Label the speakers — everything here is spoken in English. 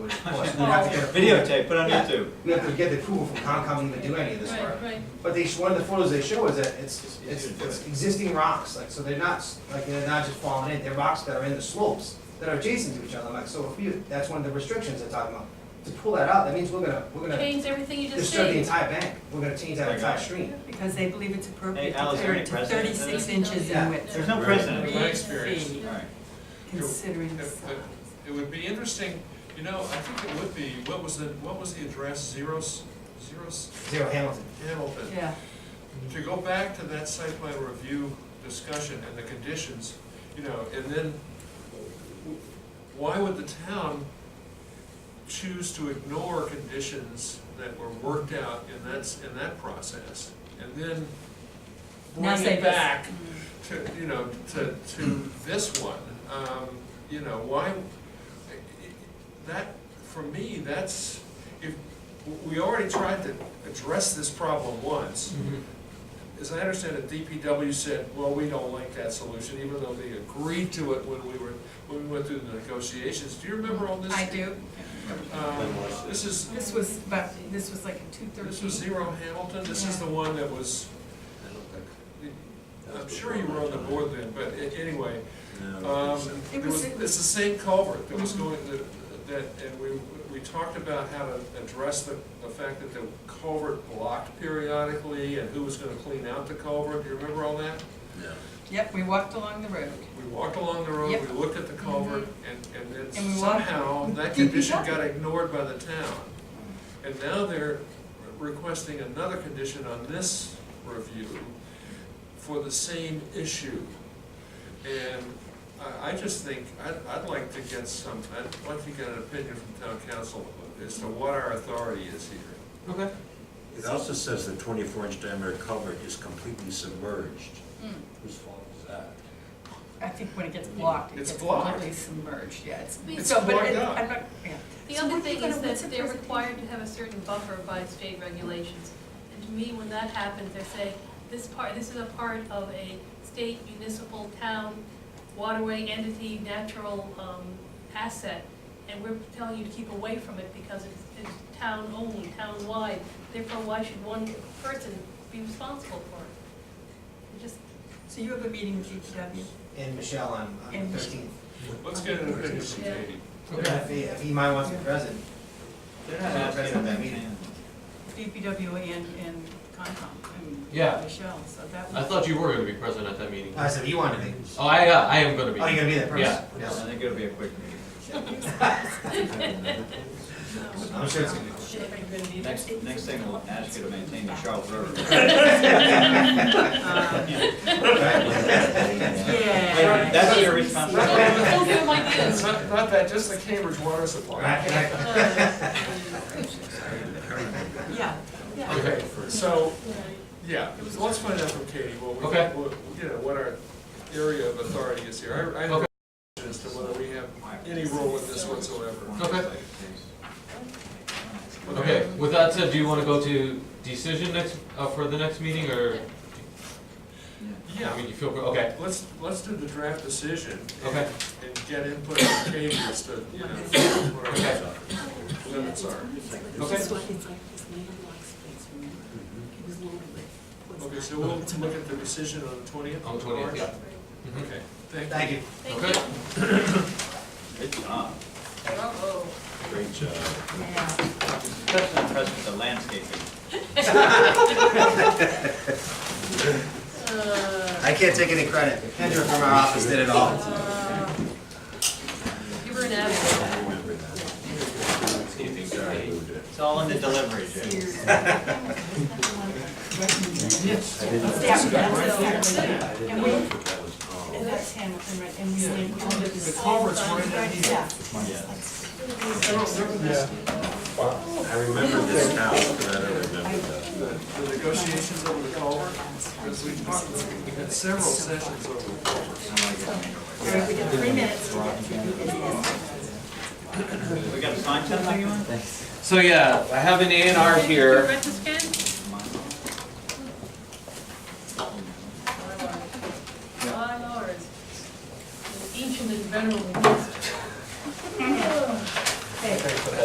Speaker 1: course, we'd have to get approval.
Speaker 2: Videotape, put on
Speaker 1: Yeah.
Speaker 2: YouTube.
Speaker 1: We'd have to get the approval from Concom to even do any of this work.
Speaker 3: Right, right.
Speaker 1: But they, one of the photos they show is that it's, it's,
Speaker 2: It's easier to do
Speaker 1: it's
Speaker 2: it.
Speaker 1: existing rocks, like, so they're not, s- like, they're not just falling in, they're rocks that are in the slopes that are adjacent to each other, like, so if you, that's one of the restrictions they're talking about. To pull that out, that means we're gonna, we're gonna
Speaker 3: Change everything you just
Speaker 1: disturb the
Speaker 3: said.
Speaker 1: entire bank, we're gonna change that
Speaker 2: Like
Speaker 1: entire
Speaker 2: that.
Speaker 1: stream.
Speaker 4: Because they believe it's
Speaker 2: Hey,
Speaker 4: appropriate to
Speaker 2: Al, is there
Speaker 4: thir-
Speaker 2: any
Speaker 4: to
Speaker 2: precedent to
Speaker 4: thirty-six
Speaker 2: this?
Speaker 4: inches
Speaker 3: Yeah.
Speaker 4: in width.
Speaker 2: There's no
Speaker 5: Right.
Speaker 2: precedent.
Speaker 5: In my
Speaker 4: Three
Speaker 5: experience.
Speaker 4: feet,
Speaker 2: Alright,
Speaker 4: Considering the
Speaker 5: If-
Speaker 4: size.
Speaker 5: if- It would be interesting, you know, I think it would be, what was the, what was the address, zero, s- zero s-
Speaker 1: Zero Hamilton.
Speaker 5: Hamilton?
Speaker 4: Yeah,
Speaker 5: To go back to that site plan review discussion and the conditions, you know, and then w- why would the town choose to ignore conditions that were worked out in that, in that process? And then
Speaker 4: Now Mm.
Speaker 5: bring
Speaker 4: say
Speaker 5: it
Speaker 4: this.
Speaker 5: back to, you know, to, to this one, um, you know, why, that, for me, that's, if, we already tried to address this problem once. As I understand it, DPW said, well, we don't like that solution, even though they agreed to it when we were, when we went through the negotiations. Do you remember all this?
Speaker 6: I do.
Speaker 5: Um, This is,
Speaker 6: This was, but, this was like in two
Speaker 5: this was
Speaker 6: thirteen.
Speaker 5: Zero Hamilton, this is the one that was, I'm sure you were on the board then, but a- anyway,
Speaker 2: no.
Speaker 5: um,
Speaker 6: It
Speaker 5: it
Speaker 6: was- Mm-hmm.
Speaker 5: was, it's the same culvert that was going, that- that, and we, we talked about how to address the, the fact that the culvert blocked periodically and who was gonna clean out the culvert, do you remember all that?
Speaker 6: Yep, we walked along the road.
Speaker 5: We walked along the road,
Speaker 6: Yep. Mm-hmm.
Speaker 5: we looked at the culvert, and, and then
Speaker 6: And we walked
Speaker 5: somehow
Speaker 6: with
Speaker 5: that
Speaker 6: DPW.
Speaker 5: condition got ignored by the town. And now they're requesting another condition on this review for the same issue. And I, I just think, I'd, I'd like to get some, I'd like to get an opinion from town council as to what our authority is here.
Speaker 2: Okay.
Speaker 7: It also says the twenty-four inch diameter culvert is completely submerged.
Speaker 3: Hmm.
Speaker 7: Whose fault is that?
Speaker 6: I think when it gets blocked, it
Speaker 5: It's
Speaker 6: gets
Speaker 5: blocked.
Speaker 6: completely submerged, yeah, it's.
Speaker 3: It's
Speaker 6: so, but
Speaker 5: blocked
Speaker 6: it-
Speaker 5: out.
Speaker 6: I'm not- yeah.
Speaker 3: The
Speaker 6: So
Speaker 3: other
Speaker 6: what are you
Speaker 3: thing
Speaker 6: gonna-
Speaker 3: is
Speaker 6: what's the
Speaker 3: that they're
Speaker 6: presentation?
Speaker 3: required to have a certain buffer by state regulations. And to me, when that happens, they're saying, this part, this is a part of a state, municipal, town, waterway entity, natural, um, asset. And we're telling you to keep away from it because it's, it's town-owned, town-wide, therefore why should one person be responsible for it? It just,
Speaker 6: So you have a meeting with DPW?
Speaker 1: And Michelle on, on
Speaker 6: And-
Speaker 1: thirteen.
Speaker 5: Let's get an opinion from
Speaker 3: Yeah.
Speaker 5: Katie.
Speaker 1: If he, if he might want to be present,
Speaker 2: They're not asking if that meeting.
Speaker 6: DPW and, and Concom, and
Speaker 8: Yeah.
Speaker 6: Michelle, so that
Speaker 8: I
Speaker 6: was.
Speaker 8: thought you were gonna be present at that meeting.
Speaker 1: I said, you want to be,
Speaker 8: Oh, I, uh, I am gonna
Speaker 1: oh,
Speaker 8: be.
Speaker 1: you're gonna be that person?
Speaker 8: Yeah.
Speaker 2: I think it'll be a quick meeting.
Speaker 1: I'm sure it's gonna be.
Speaker 2: Next, next thing, we'll ask you to maintain the Charles River.
Speaker 6: Um, Yeah.
Speaker 2: That's what your responsibility.
Speaker 3: don't, do my
Speaker 5: It's not, not that, just the Cambridge water supply.
Speaker 1: Right, right.
Speaker 6: Yeah, yeah.
Speaker 8: Okay.
Speaker 5: So, yeah, let's find out from Katie what we,
Speaker 8: Okay.
Speaker 5: what, you know, what our area of authority is here. I, I have a
Speaker 8: Okay.
Speaker 5: question as to whether we have any role in this whatsoever.
Speaker 8: Okay. Okay, with that said, do you wanna go to decision next, uh, for the next meeting, or, I
Speaker 5: Yeah,
Speaker 8: mean, you feel, okay,
Speaker 5: let's, let's do the draft decision. and-
Speaker 8: Okay.
Speaker 5: And get input from Katie as to, you know, what
Speaker 8: okay,
Speaker 5: our limits are.
Speaker 8: okay.
Speaker 5: Okay, so we'll look at the decision on the twentieth?
Speaker 8: On the twentieth, yeah. Mhm.
Speaker 5: Okay, thank
Speaker 1: Thank you.
Speaker 5: you.
Speaker 3: Thank
Speaker 8: Okay,
Speaker 2: Good job.
Speaker 3: Uh-oh.
Speaker 7: Great job.
Speaker 6: Yeah.
Speaker 2: Especially impressed with the landscaping.
Speaker 3: Uh,
Speaker 1: I can't take any credit. Kendra from our office did it all.
Speaker 3: uh, You were an asshole.
Speaker 7: Remember that.
Speaker 2: Landscaping, sorry. It's all in the delivery, Jim.
Speaker 7: I didn't.
Speaker 6: Yeah, that's- And we,
Speaker 7: think that was all.
Speaker 6: and that's Hamilton, right, and we linked all of this.
Speaker 5: The culvert's right in
Speaker 6: Right,
Speaker 5: here.
Speaker 6: Yeah.
Speaker 7: I remember this now, but I don't remember that.
Speaker 5: The the negotiations over the culvert, because we talked, we had several sessions over the culvert.
Speaker 6: Right, we got three minutes to get to
Speaker 2: We gotta sign something, you want?
Speaker 8: so yeah, I have an A and R here.
Speaker 3: Read this, Ken?